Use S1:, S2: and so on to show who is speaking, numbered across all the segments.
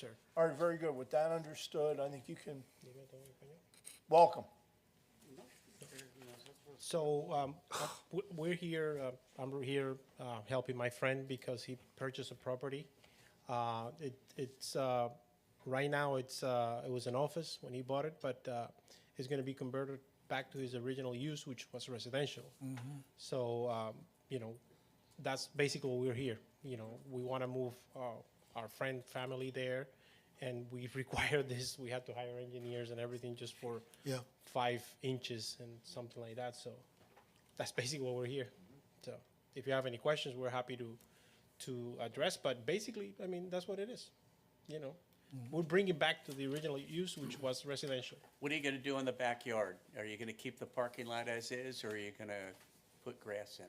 S1: Sure.
S2: All right, very good. With that understood, I think you can, welcome.
S1: So um, w- we're here, uh, I'm here uh, helping my friend because he purchased a property. Uh, it- It's, uh, right now, it's, uh, it was an office when he bought it, but uh, it's going to be converted back to his original use, which was residential. So, um, you know, that's basically what we're here. You know, we want to move uh, our friend, family there, and we've required this. We had to hire engineers and everything just for
S3: Yeah.
S1: five inches and something like that. So that's basically what we're here. So if you have any questions, we're happy to to address. But basically, I mean, that's what it is. You know, we're bringing back to the original use, which was residential.
S4: What are you gonna do in the backyard? Are you gonna keep the parking lot as is, or are you gonna put grass in?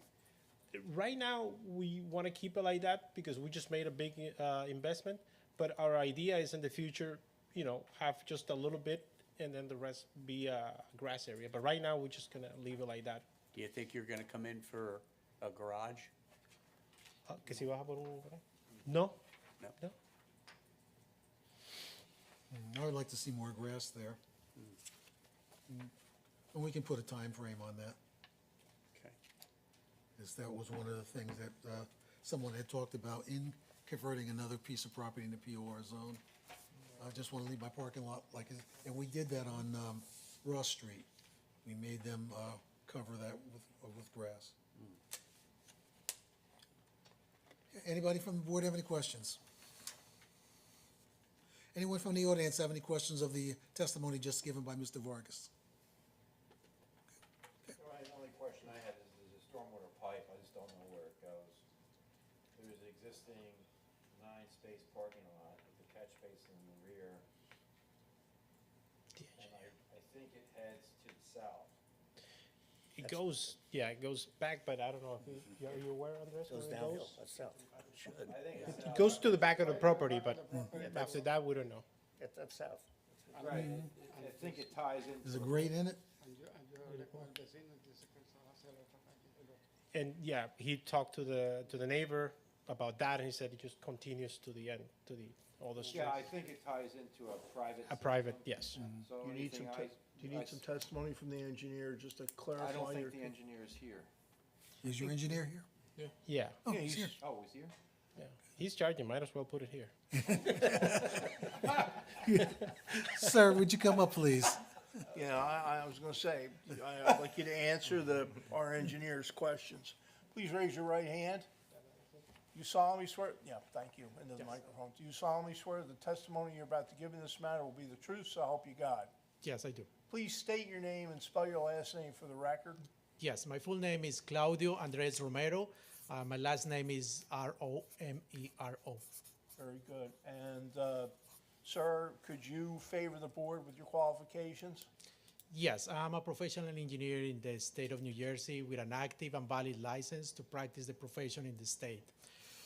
S1: Right now, we want to keep it like that because we just made a big uh, investment. But our idea is in the future, you know, have just a little bit and then the rest be a grass area. But right now, we're just gonna leave it like that.
S4: Do you think you're gonna come in for a garage?
S1: Uh, que si baja por un- No,
S4: No?
S1: no.
S3: I would like to see more grass there. And we can put a time frame on that,
S4: Okay.
S3: as that was one of the things that uh, someone had talked about in converting another piece of property into POR zone. I just want to leave my parking lot like, it- and we did that on um, Ross Street. We made them uh, cover that with, uh, with grass. Anybody from the board have any questions? Anyone from the audience have any questions of the testimony just given by Mr. Vargas?
S5: Ryan, the only question I had is, there's a stormwater pipe, I just don't know where it goes. There is an existing nine-space parking lot with a catch basin in the rear, and I, I think it heads to the south.
S1: It goes, yeah, it goes back, but I don't know if you, are you aware, Andres? where It goes
S6: that's south. Should,
S5: I think it's
S1: It
S5: south.
S1: goes to the back of the property, but after that, we don't know.
S6: that's up south.
S5: Right, I I think it ties into.
S3: Is it grate in it?
S7: Yo, yo hablé con el vecino y dice que él se va a hacer otra calle.
S1: And yeah, he talked to the, to the neighbor about that, and he said it just continues to the end, to the, all the streets.
S5: Yeah, I think it ties into a private.
S1: A private, yes.
S5: So
S2: Do you need some,
S5: anything
S2: te-
S5: I.
S2: do you
S5: I
S2: need
S5: s-
S2: some testimony from the engineer just to
S5: I don't
S2: clarify your?
S5: think the engineer is here.
S3: Is your engineer here?
S1: Yeah,
S3: Oh, he's here.
S5: Oh, he's here?
S1: yeah. He's charging, might as well put it here.
S3: Sir, would you come up, please?
S2: You know, I, I was gonna say, I- I'd like you to answer the, our engineer's questions. Please raise your right hand. You solemnly swear, yeah, thank you, into the microphone. Do you solemnly swear the testimony you're about to give in this matter will be the truth, so help you God?
S8: Yes, I do.
S2: Please state your name and spell your last name for the record.
S8: Yes, my full name is Claudio Andres Romero. Uh, my last name is R O M E R O.
S2: Very good. And, uh, sir, could you favor the board with your qualifications?
S8: Yes, I'm a professional engineer in the state of New Jersey with an active and valid license to practice the profession in the state.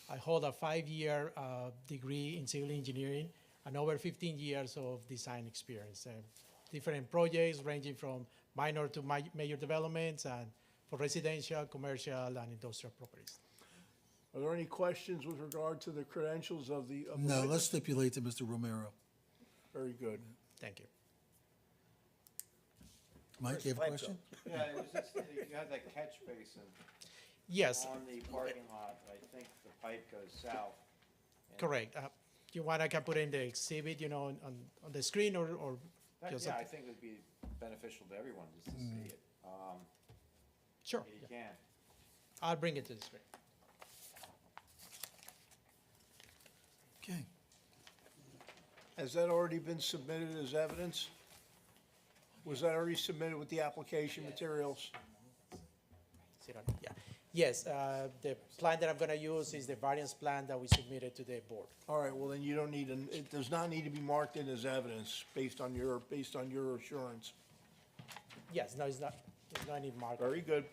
S8: I hold a five year uh, degree in civil engineering and over 15 years of design experience. And different projects ranging from minor to ma- major developments and for residential, commercial, and industrial properties.
S2: Are there any questions with regard to the credentials of the? of the
S3: No,
S2: witness?
S3: let's stipulate to Mr. Romero.
S2: Very good.
S8: Thank you.
S3: Mike, you have a
S6: Pipe
S3: question?
S5: Yeah, it was just, you had that catch basin.
S8: Yes.
S5: on the parking lot, I think the pipe goes south. and-
S8: Correct. Uh, You want, I can put in the exhibit, you know, on, on- on the screen or, or
S5: That-
S8: just,
S5: Yeah,
S8: up-
S5: I think it would be beneficial to everyone just to see it. Um,
S8: sure,
S5: if
S8: yeah.
S5: You can.
S8: I'll bring it to the screen.
S3: Okay.
S2: Has that already been submitted as evidence? Was that already submitted with the application materials?
S8: Sit on it, Yeah. Yes, uh, the plan that I'm gonna use is the variance plan that we submitted to the board.
S2: All right, well, then you don't need, an- it does not need to be marked in as evidence based on your, based on your assurance.
S8: Yes, no, it's not, there's no need mark.
S2: Very good.